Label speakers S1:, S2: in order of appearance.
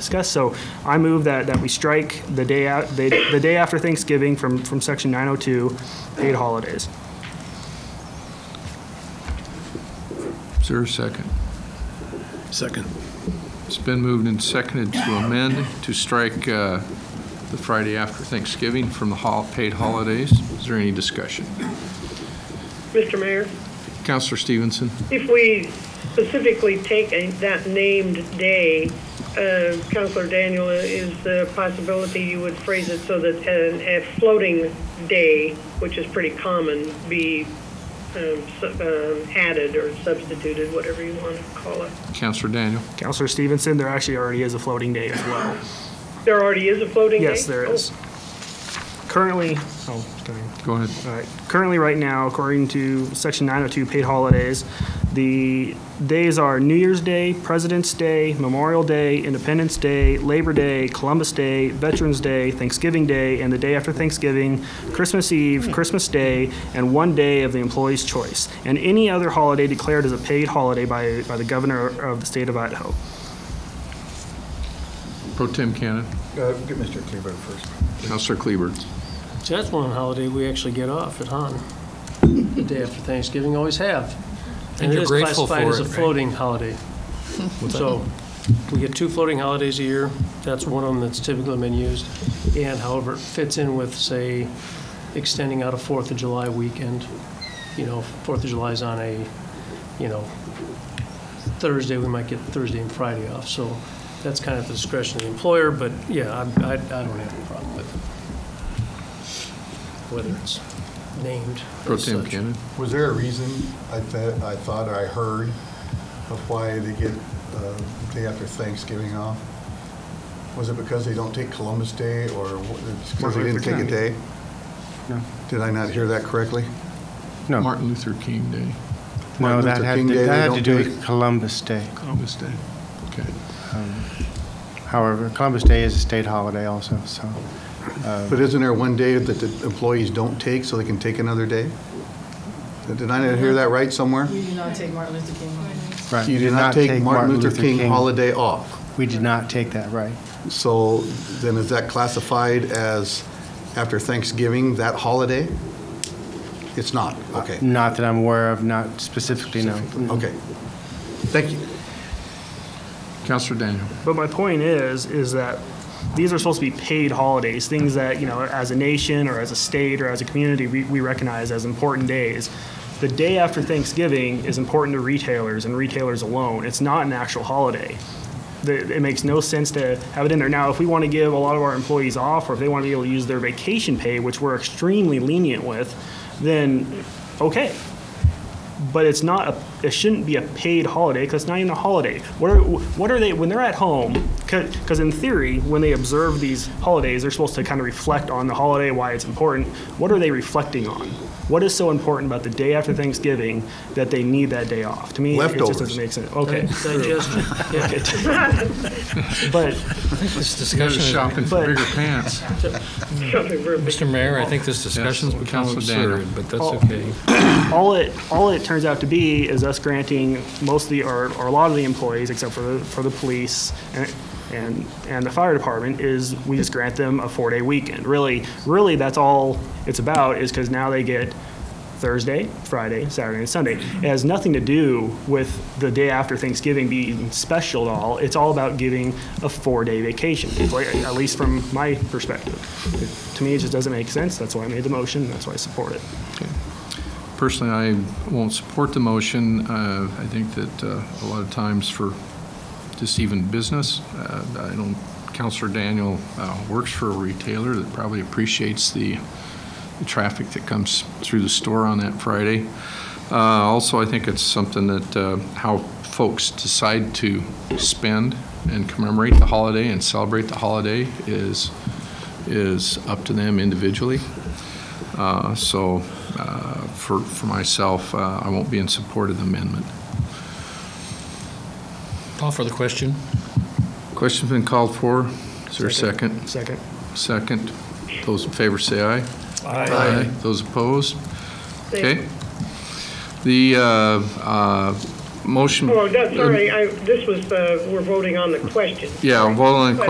S1: discussed. So I move that, that we strike the day out, the, the day after Thanksgiving from, from section 902, paid holidays.
S2: Is there a second?
S3: Second.
S2: It's been moved and seconded to amend to strike uh, the Friday after Thanksgiving from the hol- paid holidays. Is there any discussion?
S4: Mr. Mayor,
S2: Counselor Stevenson?
S4: if we specifically take a- that named day, uh, Counselor Daniel, is the possibility you would phrase it so that an- a floating day, which is pretty common, be um, su- um, added or substituted, whatever you want to call it.
S2: Counselor Daniel?
S1: Counselor Stevenson, there actually already is a floating day as well.
S4: There already is a floating day?
S1: Yes, there is. Currently, oh, sorry.
S2: Go ahead.
S1: All right. Uh, Currently, right now, according to Section 902 paid holidays, the days are New Year's Day, President's Day, Memorial Day, Independence Day, Labor Day, Columbus Day, Veterans Day, Thanksgiving Day, and the day after Thanksgiving, Christmas Eve, Christmas Day, and one day of the employee's choice, and any other holiday declared as a paid holiday by, by the governor of the state of Idaho.
S2: Pro Tem Cannon?
S5: Uh, Get Mr. Kleber first.
S2: Counselor Kleber?
S6: So that's one holiday we actually get off at Han. The day after Thanksgiving, always have. And it
S3: you're
S6: is
S3: grateful
S6: classified
S3: for
S6: as a
S3: it, right?
S6: floating holiday. So we get two floating holidays a year. That's one of them that's typically been used. And however, it fits in with, say, extending out a Fourth of July weekend. You know, Fourth of July is on a, you know, Thursday, we might get Thursday and Friday off. So that's kind of at the discretion of the employer, but yeah, I, I I don't have a problem with it whether it's named.
S2: Pro
S6: as
S2: Tem
S6: such.
S2: Cannon?
S5: Was there a reason I thought, I thought or I heard of why they get uh, the day after Thanksgiving off? Was it because they don't take Columbus Day or wha- it's because they didn't take a day?
S7: No.
S5: Did I not hear that correctly?
S7: No,
S2: Martin Luther King Day,
S7: no,
S5: Martin
S7: that
S5: Luther
S7: had,
S5: King Day,
S7: to-
S5: they
S7: that had to
S5: don't
S7: do
S5: take-
S7: with Columbus Day.
S3: Oh.
S2: Columbus Day. Okay.
S7: However, Columbus Day is a state holiday also, so.
S5: But isn't there one day that the employees don't take so they can take another day? Did I not hear that right somewhere?
S8: We do not take Martin Luther King holiday.
S7: right,
S5: You did not take Martin Luther King holiday off.
S7: We did not take that, right.
S5: So then is that classified as after Thanksgiving, that holiday? It's not, okay,
S7: Not that I'm aware of, not specifically, no. Mm-hmm.
S5: okay. Thank you.
S2: Counselor Daniel?
S1: But my point is, is that these are supposed to be paid holidays, things that, you know, as a nation or as a state or as a community, we, we recognize as important days. The day after Thanksgiving is important to retailers and retailers alone. It's not an actual holiday. The, it makes no sense to have it in there. Now, if we want to give a lot of our employees off or if they want to be able to use their vacation pay, which we're extremely lenient with, then okay but it's not a, it shouldn't be a paid holiday because it's not even a holiday. What are, what are they, when they're at home, because in theory, when they observe these holidays, they're supposed to kind of reflect on the holiday, why it's important. What are they reflecting on? What is so important about the day after Thanksgiving that they need that day off? To me, it
S5: Leftovers.
S1: just doesn't make sense. Okay.
S6: Digestion, yeah,
S1: but
S3: This
S2: Guys are
S3: discussion, is-
S2: shopping for
S1: But-
S2: bigger pants.
S4: Something very big.
S3: Mr. Mayor, I think this discussion's become
S2: Councilor
S3: absurd,
S2: Daniel.
S3: but that's
S1: Oh.
S3: okay.
S1: all it, all it turns out to be is us granting mostly, or, or a lot of the employees, except for the, for the police and, and, and the fire department, is we just grant them a four-day weekend. Really, really, that's all it's about, is because now they get Thursday, Friday, Saturday, and Sunday. It has nothing to do with the day after Thanksgiving being special at all. It's all about giving a four-day vacation, like, at least from my perspective. To me, it just doesn't make sense. That's why I made the motion. That's why I support it.
S2: Personally, I won't support the motion. Uh, I think that uh, a lot of times for just even business, uh, I don't, Counselor Daniel uh, works for a retailer that probably appreciates the the traffic that comes through the store on that Friday. Uh, Also, I think it's something that, uh, how folks decide to spend and commemorate the holiday and celebrate the holiday is, is up to them individually. Uh, So uh, for, for myself, uh, I won't be in support of the amendment.
S3: Call for the question.
S2: Question's been called for. Is there a second?
S1: Second.
S2: Second. Those in favor say aye.
S5: Aye.
S2: Those opposed?
S4: Thank you.
S2: Okay. The uh, uh, motion.
S4: Oh, that's, sorry, I, this was, uh, we're voting on the question.
S2: Yeah, well, and